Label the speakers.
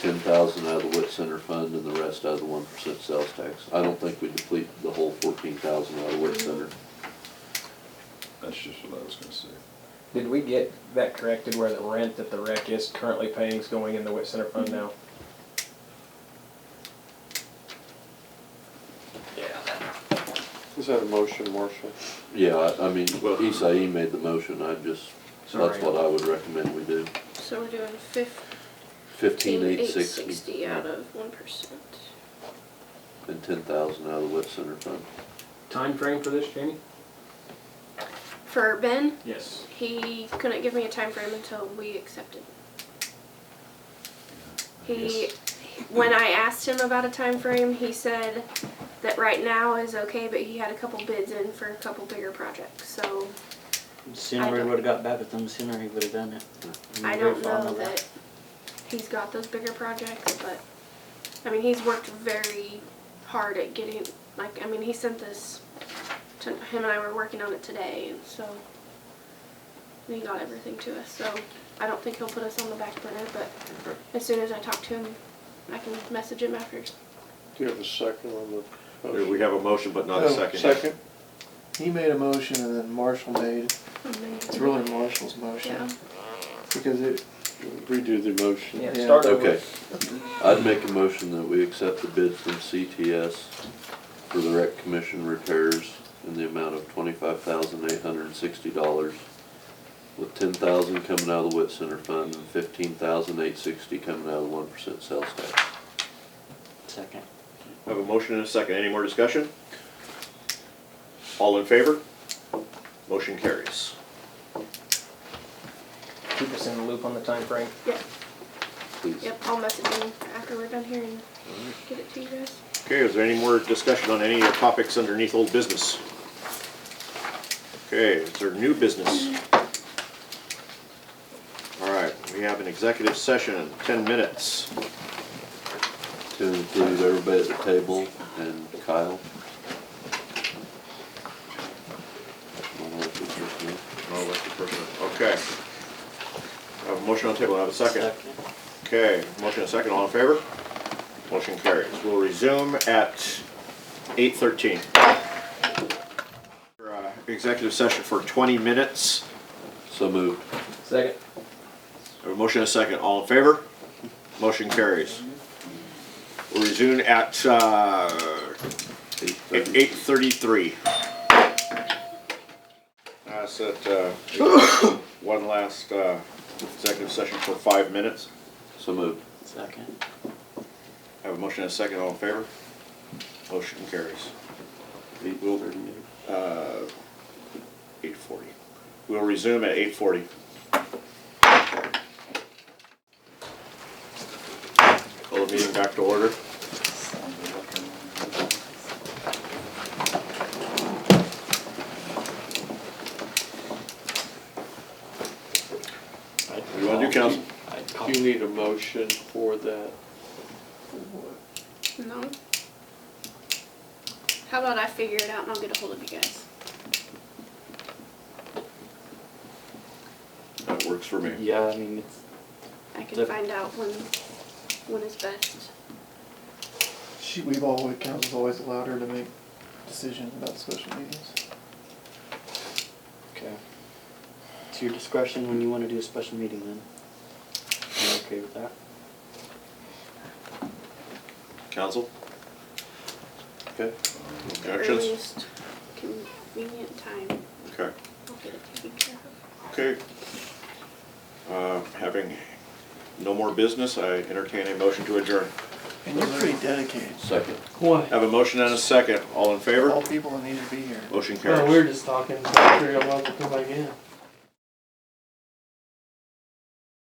Speaker 1: ten thousand out of the WIT Center Fund and the rest out of the one percent sales tax. I don't think we deplete the whole fourteen thousand out of WIT Center.
Speaker 2: That's just what I was gonna say.
Speaker 3: Did we get that corrected where the rent that the rec is currently paying is going in the WIT Center fund now?
Speaker 4: Is that a motion, Marshall?
Speaker 1: Yeah, I, I mean, Isai made the motion, I just, that's
Speaker 3: Sorry.
Speaker 1: what I would recommend we do.
Speaker 5: So we're doing fifteen
Speaker 1: Fifteen
Speaker 5: eight
Speaker 1: eight sixty
Speaker 5: sixty out of one percent.
Speaker 1: and ten thousand out of the WIT Center Fund.
Speaker 3: Time frame for this, Jamie?
Speaker 5: For Ben,
Speaker 3: Yes.
Speaker 5: he couldn't give me a time frame until we accepted. He, when I asked him about a time frame, he said that right now is okay, but he had a couple bids in for a couple bigger projects, so
Speaker 6: Sooner we would've got back with them, sooner he would've done it.
Speaker 5: I don't know that he's got those bigger projects, but, I mean, he's worked very hard at getting, like, I mean, he sent this, to, him and I were working on it today, and so, and he got everything to us, so I don't think he'll put us on the back burner, but as soon as I talk to him, I can message him after.
Speaker 4: Do you have a second on the
Speaker 7: There,
Speaker 4: motion?
Speaker 7: We have a motion, but not
Speaker 4: Oh,
Speaker 7: a second.
Speaker 4: Second?
Speaker 8: He made a motion and then Marshall made, it's really Marshall's
Speaker 5: Yeah,
Speaker 8: motion, because it,
Speaker 4: Redo the motion.
Speaker 3: Yeah,
Speaker 8: Yeah.
Speaker 3: start
Speaker 1: Okay.
Speaker 3: over.
Speaker 1: I'd make a motion that we accept the bid from CTS for the rec commission repairs in the amount of twenty-five thousand eight hundred and sixty dollars, with ten thousand coming out of the WIT Center Fund and fifteen thousand eight sixty coming out of the one percent sales tax.
Speaker 6: Second.
Speaker 7: Have a motion and a second. Any more discussion? All in favor? Motion carries.
Speaker 3: Keep us in the loop on the time frame.
Speaker 5: yeah,
Speaker 1: Please.
Speaker 5: yep, I'll message him after we're done here and get it to you guys.
Speaker 7: Okay, is there any more discussion on any of the topics underneath old business? Okay, is there new business? All right, we have an executive session, ten minutes.
Speaker 1: To include everybody at the table and Kyle. I don't know if it's just me.
Speaker 7: Oh, that's the person. Okay. I Have a motion on the table, I have a second. Okay, motion and second, all in favor? Motion carries. We'll resume at eight thirteen. uh, Executive session for twenty minutes.
Speaker 1: So moved.
Speaker 3: Second.
Speaker 7: I have A motion and a second, all in favor? Motion carries. We'll resume at, uh,
Speaker 1: Eight thirty.
Speaker 7: eight thirty-three. I said, uh, one last, uh, executive session for five minutes.
Speaker 1: So moved.
Speaker 6: Second.
Speaker 7: Have a motion and a second, all in favor? Motion carries.
Speaker 1: Eight thirty-eight.
Speaker 7: Eight forty. We'll resume at eight forty. Call the meeting back to order. What do you wanna do, council?
Speaker 4: Do you need a motion for that?
Speaker 5: No. How about I figure it out and I'll get a hold of you guys?
Speaker 7: That works for me.
Speaker 6: Yeah, I mean, it's,
Speaker 5: I can
Speaker 6: Yep.
Speaker 5: find out when when is best.
Speaker 8: she, we've always, council's always allowed her to make decisions about special meetings.
Speaker 6: okay. It's your discretion when you wanna do a special meeting then. You okay with that?
Speaker 7: Council?
Speaker 1: Okay.
Speaker 5: The
Speaker 7: Objections?
Speaker 5: earliest convenient time.
Speaker 7: Okay.
Speaker 5: I'll get it taken care of.
Speaker 7: Okay. Uh, Having no more business, I entertain a motion to adjourn.
Speaker 8: And you're pretty dedicated,
Speaker 1: Second.
Speaker 9: Why?
Speaker 7: Have a motion and a second. All in favor?
Speaker 8: all people that need to be here.
Speaker 7: Motion carries.
Speaker 9: Oh, Well, we were just talking, so I figured I might as well come back in.